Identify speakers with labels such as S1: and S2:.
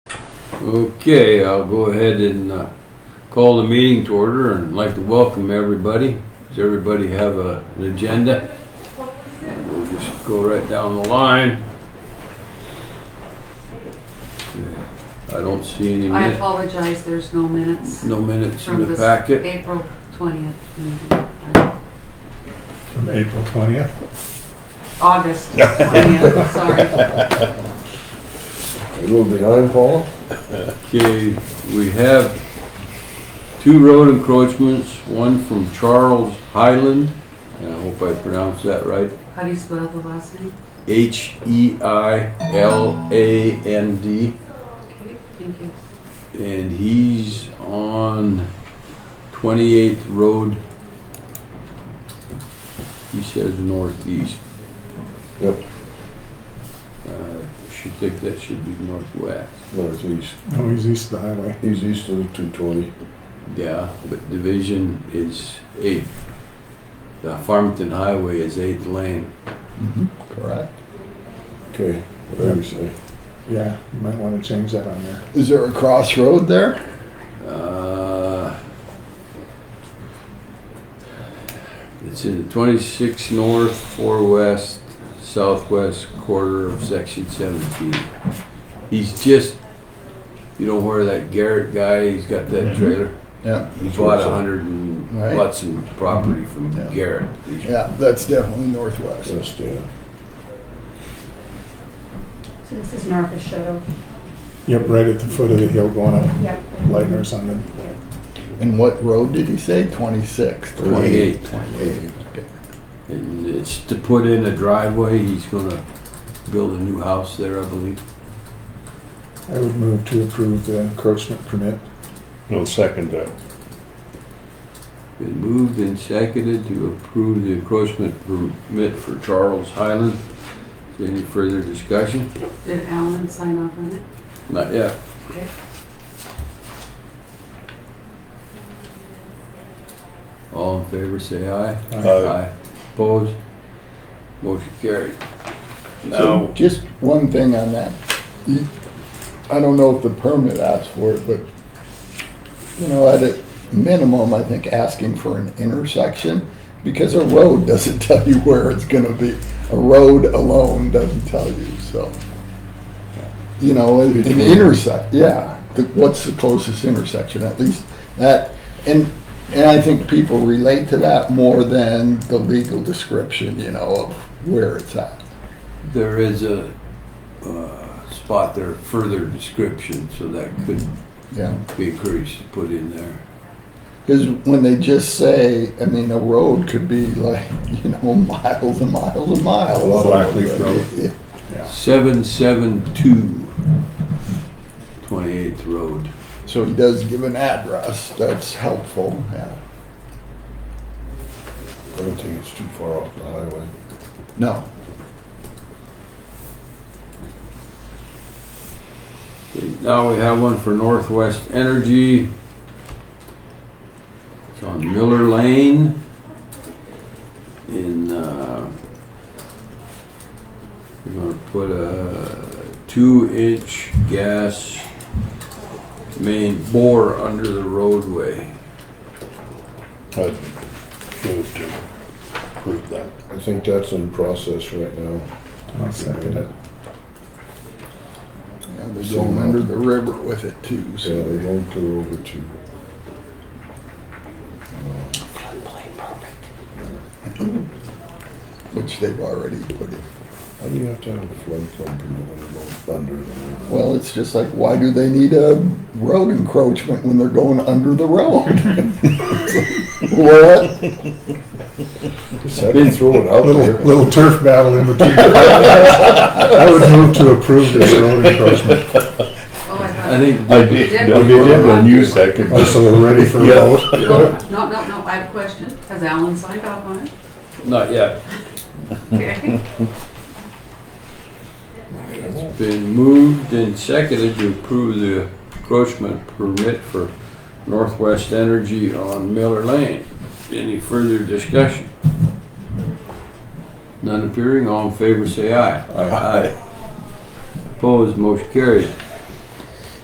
S1: Okay, I'll go ahead and uh, call the meeting to order and like to welcome everybody. Does everybody have a- an agenda? We'll just go right down the line. I don't see any
S2: I
S1: minutes,
S2: apologize, there's no minutes
S1: no minutes
S2: from
S1: in the
S2: this
S1: packet.
S2: April 20th meeting.
S3: From April 20th?
S2: August 20th, sorry.
S4: A little behind, Paul?
S1: Okay, we have two road encroachments, one from Charles Highland, and I hope I pronounced that right,
S2: How do you spell the last name?
S1: H E I L A N D,
S2: Okay, Thank you.
S1: and he's on 28th Road. He says northeast.
S4: Yep,
S1: Uh, Should think that should be northwest.
S4: northeast.
S3: No, Oh, he's east of the highway.
S4: He's east of two twenty.
S1: Yeah, but division is 8th. The Farmington Highway is 8th lane.
S5: Correct.
S4: Okay, whatever you say.
S3: Yeah, you might want to change that on there.
S5: Is there a crossroad there?
S1: Uh, It's in the 26 north, 4 west, southwest quarter of section 17. He's just, you know where that Garrett guy, he's got that trailer?
S5: Yeah.
S1: He bought a hundred and
S5: Right.
S1: bought some property from
S5: Yeah.
S1: Garrett.
S5: Yeah, that's definitely northwest.
S4: That's Dan.
S6: So this is North of Shoto.
S3: Yep, right at the foot of the hill going up
S6: Yep.
S3: Lightner's on the,
S5: And what road did he say? Twenty-six.
S1: 28.
S5: Twenty-eight. Okay.
S1: And it's to put in a driveway, he's gonna build a new house there, I believe.
S3: I would move to approve the encroachment permit.
S7: No second that.
S1: Been moved and seconded to approve the encroachment permit for Charles Highland. Is there Any further discussion?
S2: Did Alan sign off on it?
S1: Not yet.
S2: Okay.
S1: All in favor, say aye.
S7: Aye.
S1: Opposed? Motion carried.
S5: So
S1: Now,
S5: just one thing on that. You- I don't know if the permit asks for it, but, you know, at a minimum, I think asking for an intersection, because a road doesn't tell you where it's gonna be. A road alone doesn't tell you, so. You know, an an intersect, yeah, The- what's the closest intersection, at least that, and, and I think people relate to that more than the legal description, you know, of where it's at.
S1: there is a, uh, spot there, further description, so that could
S5: Yeah,
S1: be encouraged to put in there.
S5: because when they just say, I mean, a road could be like, you know, miles and miles and miles.
S4: A lot of
S7: Blackleaf Road.
S5: Yeah,
S1: Seven seven two twenty-eighth Road.
S5: So he does give an address, that's helpful, yeah.
S4: I don't think it's too far off the highway.
S5: No,
S1: Okay, Now we have one for Northwest Energy. It's on Miller Lane in, uh, we're gonna put a two-inch gas main bore under the roadway.
S7: I'd move to approve that.
S4: I think that's in process right now.
S3: I'll second it.
S5: yeah, they're going under the river with it too,
S4: Yeah,
S5: so.
S4: they won't clear over to.
S5: Which they've already put in.
S4: How do you have to have a floodplain permit when it goes under? the-
S5: Well, it's just like, why do they need a road encroachment when they're going under the road? What?
S4: Just had to throw it out
S3: Little,
S4: there.
S3: little turf battle in between. I would move to approve this road encroachment,
S2: Oh, I
S1: I
S2: thought,
S1: think
S7: I did, I did when you seconded.
S3: Oh, so we're ready for a vote.
S2: Oh, no, no, no, I have a question. Has Alan signed off on it?
S1: Not yet. Hmm.
S2: Okay.
S1: Been moved and seconded to approve the encroachment permit for Northwest Energy on Miller Lane. Any further discussion? None appearing, all in favor say aye. Aye. Opposed, motion carried.